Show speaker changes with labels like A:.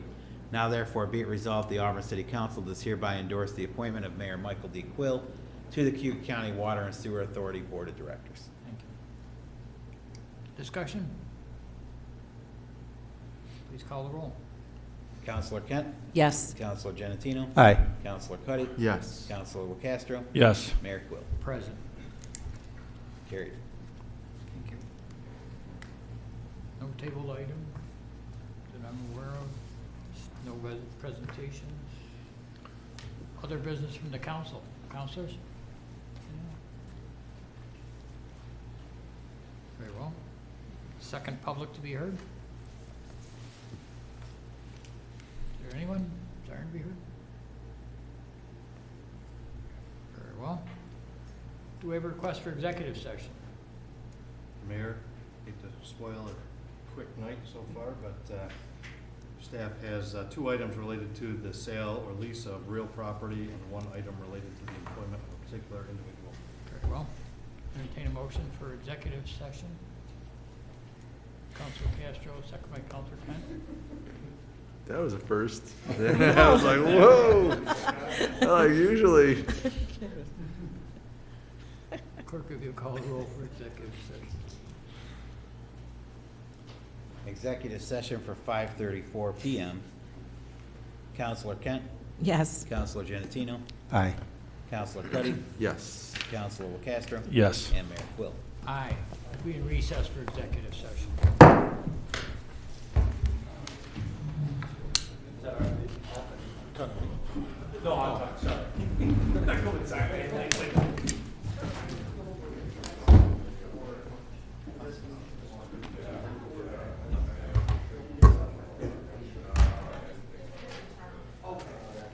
A: Now therefore be it resolved, the Auburn City Council does hereby endorse the appointment of Mayor Michael D. Quill to the Cuyahoga County Water and Sewer Authority Board of Directors.
B: Thank you. Discussion? Please call the roll.
A: Counselor Kent?
C: yes,
A: Counselor Genatino?
D: Aye.
A: Counselor Cuddy?
E: Yes.
A: Counselor Castro?
D: Yes.
A: Mayor Quill.
B: Present.
A: Carried.
B: Thank you. No table item that I'm aware of, no res- presentations. Other business from the council, councilors? Very well. Second public to be heard? Is there anyone desiring to be heard? Very well. Do we have a request for executive session?
E: Mayor, hate to spoil a quick night so far, but uh, staff has uh, two items related to the sale or lease of real property and one item related to the employment of a particular individual.
B: Very well. Entertain a motion for executive session. Council Castro, second by Council Kent.
F: That was a first. I was like, whoa. I'm like, usually,
B: Clerk, if you call the roll for executive session.
A: Executive session for five thirty-four PM. Counselor Kent?
C: yes.
A: Counselor Genatino?
D: Aye.
A: Counselor Cuddy?
F: yes.
A: Counselor Castro?
D: Yes.
A: And Mayor Quill.
B: Aye. We in recess for executive session.
G: No, I'm sorry. Not going inside, man. Like, like,